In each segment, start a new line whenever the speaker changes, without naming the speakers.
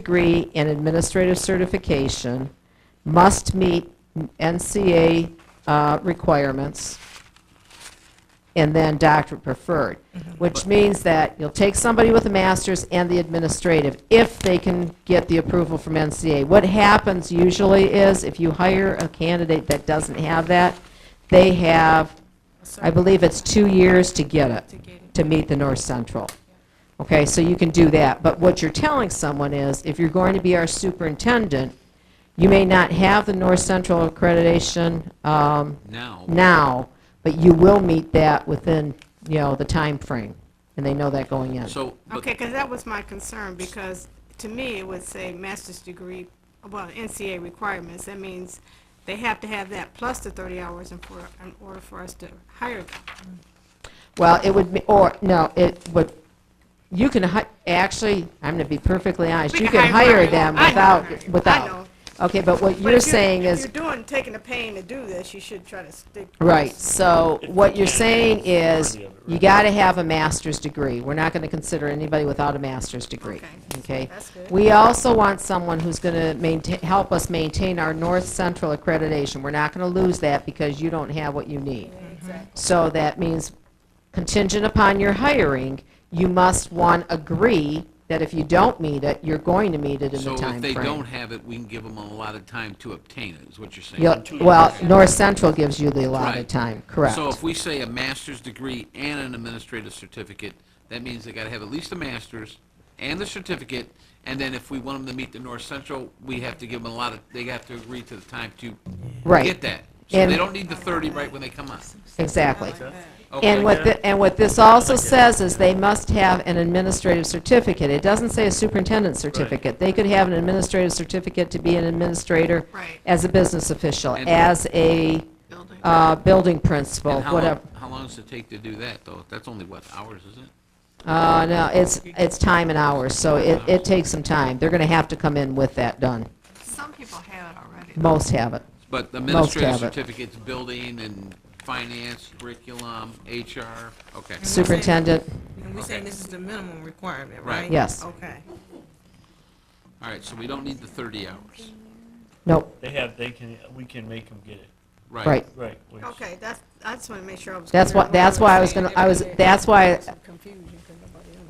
degree in administrative certification, must meet NCA uh, requirements, and then doctorate preferred, which means that you'll take somebody with a master's and the administrative, if they can get the approval from NCA. What happens usually is, if you hire a candidate that doesn't have that, they have, I believe it's two years to get it, to meet the North Central. Okay, so you can do that, but what you're telling someone is, if you're going to be our superintendent, you may not have the North Central accreditation um,
Now,
now, but you will meet that within, you know, the time frame, and they know that going in.
so, but
Okay, because that was my concern, because to me, it would say master's degree, well, NCA requirements. That means they have to have that plus the 30 hours in for, in order for us to hire them.
Well, it would, be or, no, it would, you can, hi- actually, I'm going to be perfectly honest,
We
you
can
can
hire
hire
them.
them
I know,
without,
I know. I know.
without. Okay, but what
But
you're
if
saying
if
is.
you're doing, taking the pain to do this, you should try to stick.
Right, so what you're saying is, you got to have a master's degree. We're not going to consider anybody without a master's degree,
Okay,
okay?
that's good.
We also want someone who's going to maintain, help us maintain our North Central accreditation. We're not going to lose that because you don't have what you need. So that means contingent upon your hiring, you must, one, agree that if you don't meet it, you're going to meet it in the
so
timeframe.
if they don't have it, we can give them a lot of time to obtain it, is what you're saying?
You'll- Well, North Central gives you the allotted
Right.
time, correct.
So if we say a master's degree and an administrative certificate, that means they gotta have at least a master's and the certificate, and then if we want them to meet the North Central, we have to give them a lot of, they have to agree to the time to
Right.
get that. So
And-
they don't need the thirty right when they come on.
Exactly.
Okay.
And what, thi- and what this also says is they must have an administrative certificate. It doesn't say a superintendent certificate. They could have an administrative certificate to be an administrator
Right.
as a business official,
And-
as a
Building.
uh, building principal,
And how long,
whatever.
how long does it take to do that, though? That's only what, hours, isn't it?
Uh, no, it's, it's time and hours, so it, it takes some time. They're going to have to come in with that done.
Some people have it already.
Most have it.
But the
Most
administrative
have it.
certificates, building and finance, curriculum, HR, okay.
Superintendent,
And we're saying this is the minimum requirement,
Right.
right?
Yes.
Oh.
Okay.
All right, so we don't need the 30 hours.
nope,
They have, they can, we can make them get it,
right.
right, which,
Okay, that's, I just want to make sure I was.
That's
clear on
what, that's why I was going to, I was, that's why,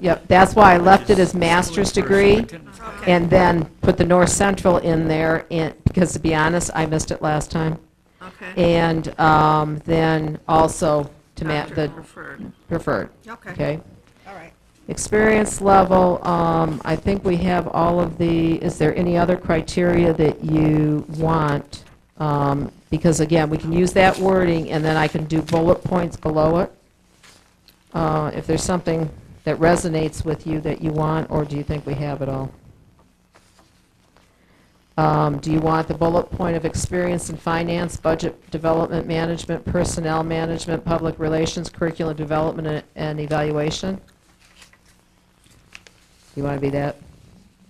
yep, that's why I left it as master's degree.
Okay.
And then put the North Central in there, and, because to be honest, I missed it last time.
Okay,
And um, then also to ma, the
Doctor preferred.
preferred,
Okay,
okay?
all right.
Experience level, um, I think we have all of the, is there any other criteria that you want? Um, Because again, we can use that wording, and then I can do bullet points below it. Uh, If there's something that resonates with you that you want, or do you think we have it all? Um, Do you want the bullet point of experience in finance, budget development management, personnel management, public relations, curriculum development, and- and evaluation? You want to be that?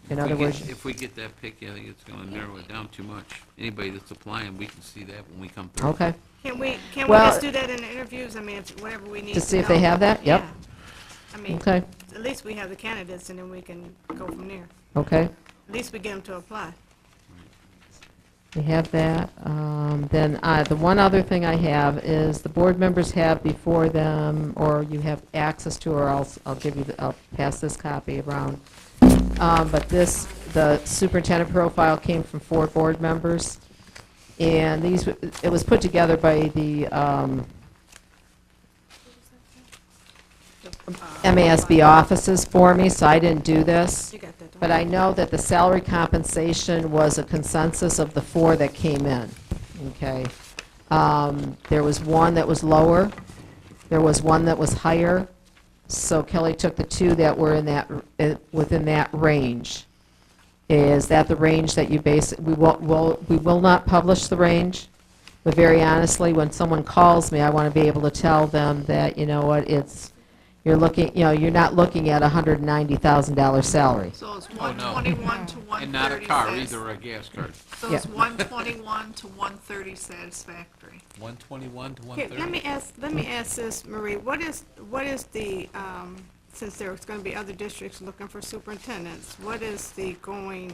In
If we
other
get-
words,
If we get that pick, I think it's going to narrow it down too much. Anybody that's applying, we can see that when we come through.
okay,
Can we, can we
Well-
just do that in the interviews? I mean, if- whatever we need
To
to
see if they
know.
have that? Yep.
Yeah. I mean,
okay,
at least we have the candidates, and then we can go from there.
okay.
At least we get them to apply.
We have that. Um, Then, uh, the one other thing I have is the board members have before them, or you have access to, or else I'll give you, the- I'll pass this copy around. Um, But this, the superintendent profile came from four board members, and these, w- it was put together by the um,
Uh,
MASB offices for me, so I didn't do this.
You got that, don't
But I know that the salary compensation was a consensus of the four that came in, okay? Um, There was one that was lower, there was one that was higher, so Kelly took the two that were in that, uh, within that range. Is that the range that you base, we will, will- we will not publish the range, but very honestly, when someone calls me, I want to be able to tell them that, you know what, it's, you're looking, you know, you're not looking at a $190,000 salary.
So it's
Oh,
one
no.
twenty-one to
And
one
not a
thirty
car either, or a gas card.
So it's
Yeah.
one twenty-one to one thirty satisfactory.
121 to
Here, let me
130.
ask, let me ask this, Marie, what is, what is the um, since there's gonna be other districts looking for superintendents, what is the going